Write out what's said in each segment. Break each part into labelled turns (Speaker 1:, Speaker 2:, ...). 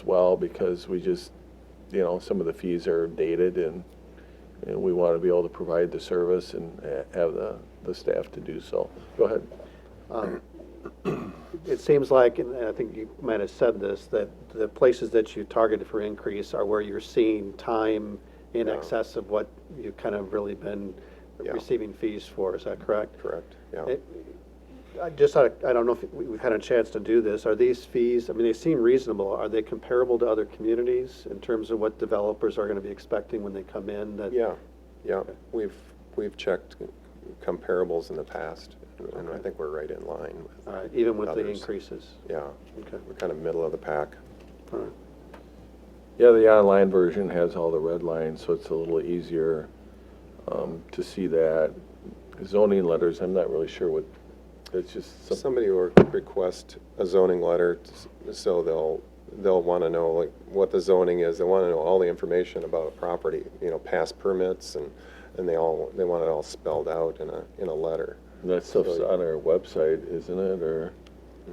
Speaker 1: as well because we just, you know, some of the fees are dated and, and we want to be able to provide the service and ha- have the, the staff to do so. Go ahead.
Speaker 2: It seems like, and I think you might have said this, that the places that you targeted for increase are where you're seeing time in excess of what you've kind of really been
Speaker 3: Yeah.
Speaker 2: receiving fees for, is that correct?
Speaker 3: Correct, yeah.
Speaker 2: It- I just, I I don't know if we- we've had a chance to do this, are these fees, I mean, they seem reasonable, are they comparable to other communities in terms of what developers are going to be expecting when they come in? That-
Speaker 3: Yeah, yeah, we've, we've checked comparables in the past, and I think we're right in line
Speaker 2: All
Speaker 3: with,
Speaker 2: right, uh, Even with the
Speaker 3: Others.
Speaker 2: increases?
Speaker 3: yeah.
Speaker 2: Okay,
Speaker 3: We're kind of middle of the pack.
Speaker 2: all right.
Speaker 1: Yeah, the online version has all the red lines, so it's a little easier um, to see that. Zoning letters, I'm not really sure what, it's just some
Speaker 3: Somebody will request a zoning letter, s- so they'll, they'll want to know, like, what the zoning is, they want to know all the information about a property, you know, past permits, and, and they all, they want it all spelled out in a, in a letter.
Speaker 1: That stuff's on our website, isn't it, or,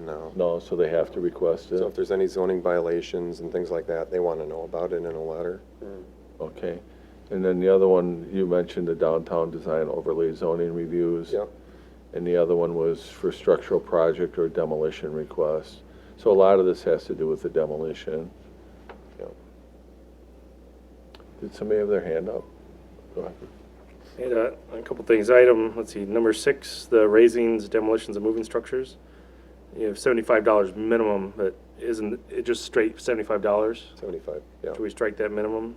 Speaker 3: No.
Speaker 1: no, so they have to request
Speaker 3: So if
Speaker 1: it?
Speaker 3: there's any zoning violations and things like that, they want to know about it in a letter.
Speaker 1: Okay. And then the other one, you mentioned the downtown design overlay zoning reviews.
Speaker 3: Yep,
Speaker 1: And the other one was for structural project or demolition request. So a lot of this has to do with the demolition.
Speaker 3: yep.
Speaker 1: Did somebody have their hand up? Go ahead.
Speaker 4: And uh, a couple things. Item, let's see, number six, the raisings, demolitions, and moving structures. You have seventy-five dollars minimum, but isn't it just straight seventy-five dollars?
Speaker 3: Seventy-five, yeah.
Speaker 4: Should we strike that minimum?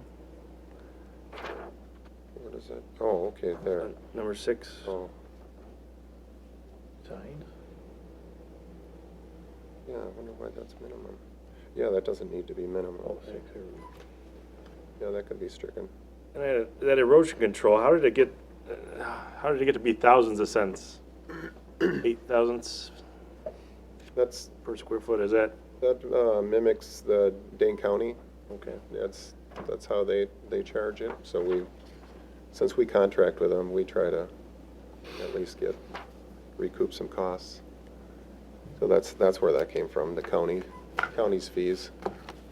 Speaker 3: What is it? Oh, okay,
Speaker 4: Uh,
Speaker 3: there.
Speaker 4: Number six,
Speaker 3: Oh, yeah, I wonder why that's minimum. Yeah, that doesn't need to be minimum. Yeah, that could be stricken.
Speaker 4: and I- that erosion control, how did it get, uh, how did it get to be thousands of cents? Eight thousandths
Speaker 3: That's,
Speaker 4: per square foot, is that?
Speaker 3: that uh, mimics the Dane County.
Speaker 4: Okay.
Speaker 3: That's, that's how they, they charge it. So we, since we contract with them, we try to at least get, recoup some costs. So that's, that's where that came from, the county, county's fees.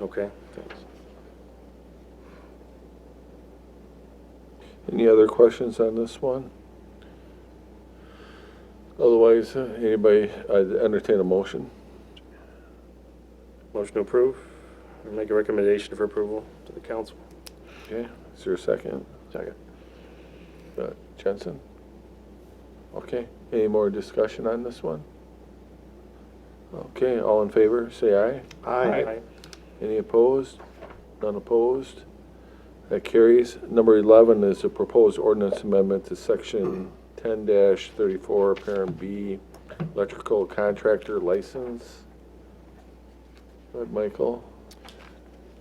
Speaker 4: Okay, thanks.
Speaker 1: Any other questions on this one? Otherwise, uh, anybody, I entertain a motion.
Speaker 4: Motion to approve, or make a recommendation for approval to the council.
Speaker 1: Okay, is there a second? Second. Uh, Jensen? Okay, any more discussion on this one? Okay, all in favor, say aye.
Speaker 2: Aye.
Speaker 1: Any opposed? None opposed? That carries. Number 11 is a proposed ordinance amendment to Section 10-34, Parent B, electrical contractor license. Go ahead, Michael.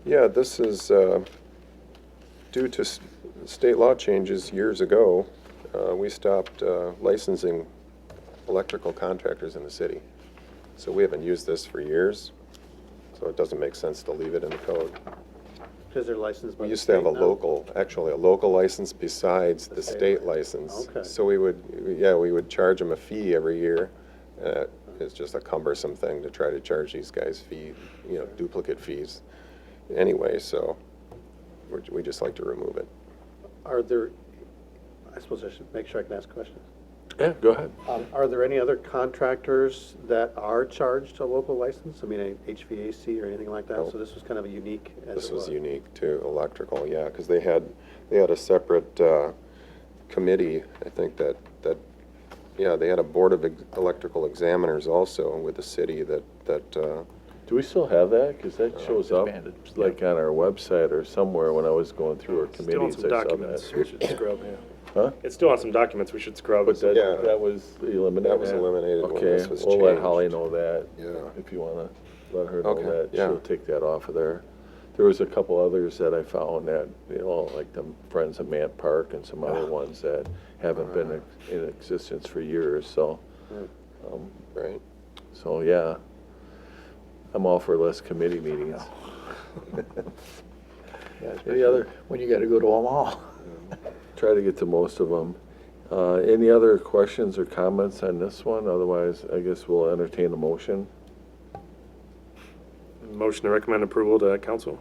Speaker 3: Yeah, this is uh, due to s- state law changes years ago. uh, We stopped uh, licensing electrical contractors in the city. So we haven't used this for years, so it doesn't make sense to leave it in the code.
Speaker 2: Because they're licensed by
Speaker 3: We
Speaker 2: the
Speaker 3: used to have a
Speaker 2: state now.
Speaker 3: local, actually a local license besides the
Speaker 2: state
Speaker 3: state license.
Speaker 2: Okay.
Speaker 3: So we would, yeah, we would charge them a fee every year. Uh, It's just a cumbersome thing to try to charge these guys fee, you know, duplicate fees anyway, so we're- we just like to remove it.
Speaker 2: Are there, I suppose I should make sure I can ask questions.
Speaker 1: Yeah, go ahead.
Speaker 2: Um, Are there any other contractors that are charged a local license? I mean, a HVAC or anything like that?
Speaker 3: No.
Speaker 2: So this was kind of a unique as it was.
Speaker 3: This was unique to electrical, yeah, because they had, they had a separate uh, committee, I think that, that, yeah, they had a board of ex- electrical examiners also with the city that, that uh,
Speaker 1: Do we still have that? Because
Speaker 4: Uh,
Speaker 1: that shows up, like, on our website or somewhere when I was going through our
Speaker 4: Still on
Speaker 1: committees.
Speaker 4: some
Speaker 1: I saw
Speaker 4: documents,
Speaker 1: that.
Speaker 4: we should scrub, yeah.
Speaker 1: Huh?
Speaker 4: It's still on some documents, we should scrub.
Speaker 1: But that,
Speaker 3: Yeah.
Speaker 1: that was eliminated.
Speaker 3: That was eliminated when
Speaker 1: Okay,
Speaker 3: this was
Speaker 1: we'll let
Speaker 3: changed.
Speaker 1: Holly know that.
Speaker 3: Yeah.
Speaker 1: If you wanna let her know
Speaker 3: Okay,
Speaker 1: that,
Speaker 3: yeah.
Speaker 1: she'll take that off of there. There was a couple others that I found that, you know, like the Friends of Mant Park and some
Speaker 3: Ah.
Speaker 1: other ones that haven't been ex- in existence for years, so,
Speaker 3: Right.
Speaker 1: so, yeah. I'm all for less committee meetings. Any other,
Speaker 5: When you gotta go to Omaha.
Speaker 1: try to get to most of them. Uh, any other questions or comments on this one? Otherwise, I guess we'll entertain a motion.
Speaker 4: Motion to recommend approval to council.